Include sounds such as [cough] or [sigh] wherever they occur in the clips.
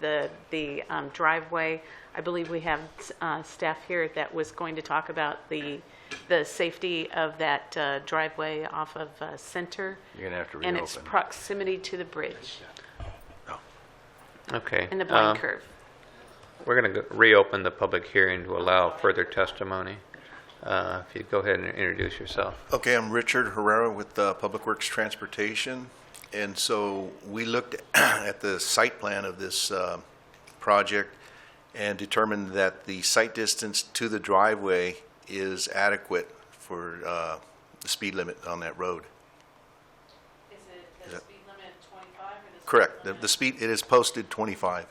the, the um, driveway. I believe we have uh, staff here that was going to talk about the, the safety of that uh, driveway off of uh, Center. You're gonna have to And its reopen. proximity to the bridge Okay. and the Uh-huh. uh, blind curve. We're going to reopen the public hearing to allow further testimony. Uh, If you'd go ahead and introduce yourself. Okay, I'm Richard Herrera with uh, Public Works Transportation. And so we looked [clears throat] at the site plan of this uh, project and determined that the site distance to the driveway is adequate for uh, the speed limit on that road. Is it the speed limit 25 or the? speed Correct. The- limit- The speed, it is posted 25.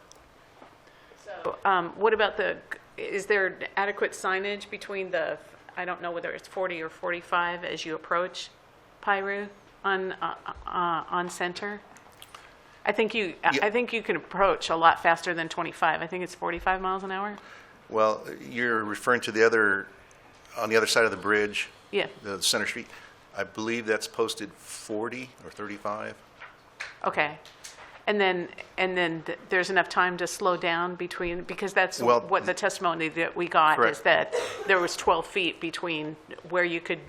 So, Um, What about the, is there adequate signage between the, I don't know whether it's 40 or 45 as you approach Piru on, uh, uh, on Center? I think you, I I think you can approach a lot faster than 25. I think it's 45 miles an hour? Well, you're referring to the other, on the other side of the bridge, Yeah, the center street. I believe that's posted 40 or 35. okay. And then, and then th- there's enough time to slow down between, because that's Well, what the testimony that we got is correct. that there was 12 feet between where you could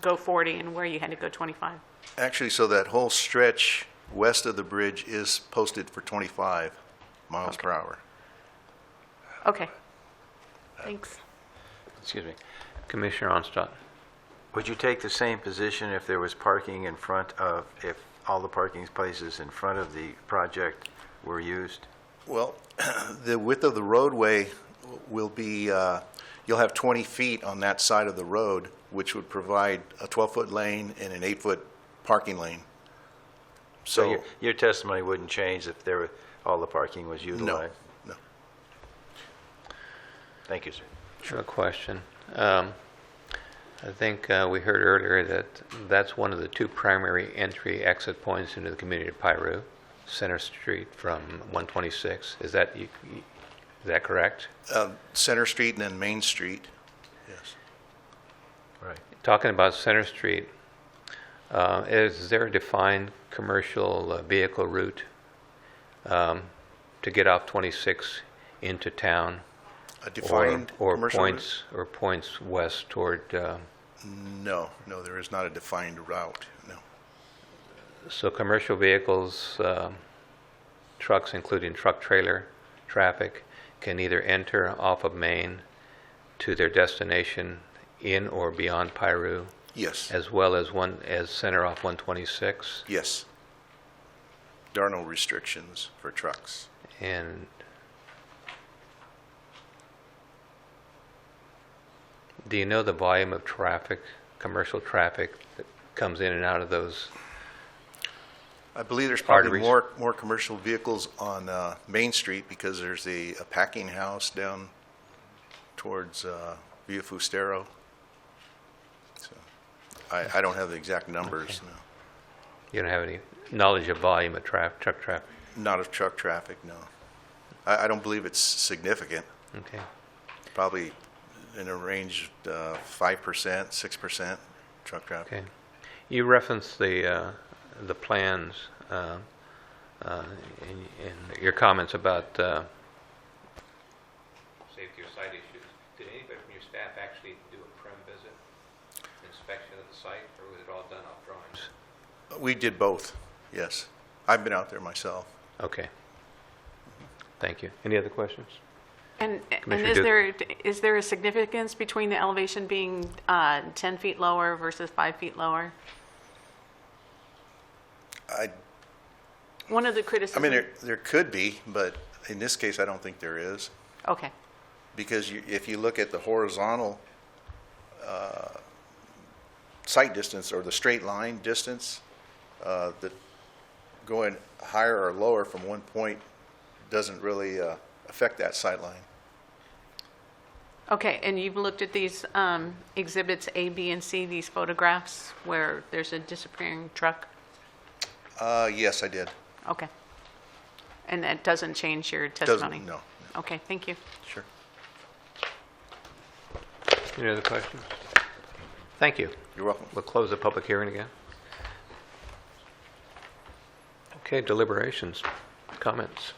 go 40 and where you had to go 25. Actually, so that whole stretch west of the bridge is posted for 25 miles per hour. Okay. Thanks. Excuse me. Commissioner Onstott. Would you take the same position if there was parking in front of, if all the parking places in front of the project were used? Well, [clears throat] the width of the roadway will be, uh, you'll have 20 feet on that side of the road, which would provide a 12-foot lane and an 8-foot parking lane. So your- So, your testimony wouldn't change if there, were all the parking was no, utilized? no. Thank you, sir. No question. Um, I think uh, we heard earlier that that's one of the two primary entry exit points into the community of Piru, Center Street from 126. Is that, you- you- is that correct? Uh, Center Street and then Main Street. Yes. Right. Talking about Center Street, uh, is there a defined commercial uh, vehicle route um, to get off 26 into town? A or- defined or commercial route? points- Or points west toward, uh, No, no, there is not a defined route, no. so commercial vehicles, um, trucks, including truck trailer traffic, can either enter off of Main to their destination in or beyond Piru, Yes, as well as one, as center off 126? yes. There are no restrictions for trucks. And do you know the volume of traffic, commercial traffic that comes in and out of those? I believe there's probably Arteries. more, more commercial vehicles on uh, Main Street because there's a a packing house down towards uh, Via Fustero. So, I, I don't have the exact numbers, no. You don't have any knowledge of volume of traf, truck traffic? Not of truck traffic, no. I, I don't believe it's significant, Okay. probably in a range of five percent, six percent truck traffic. Okay. You referenced the, uh, the plans, uh, uh, in, in your comments about, uh. Safety or site issues. Did anybody from your staff actually do a prem visit, inspection of the site, or was it all done off drawings? We did both, yes. I've been out there myself. Okay. Thank you. Any other questions? And, and Commissioner is Duke. there, is there a significance between the elevation being uh, 10 feet lower versus 5 feet lower? I One of the I criticisms. mean, there, there could be, but in this case, I don't think there is. Okay, Because you, if you look at the horizontal uh, sight distance or the straight line distance, uh, that going higher or lower from one point doesn't really uh, affect that sight line. okay, and you've looked at these um, exhibits A, B, and C, these photographs where there's a disappearing truck? Uh, Yes, I did. Okay. And that doesn't change your testimony? Doesn't, no. Okay, thank you. Sure. Any other questions? Thank you. You're welcome. We'll close the public hearing again. Okay, deliberations, comments.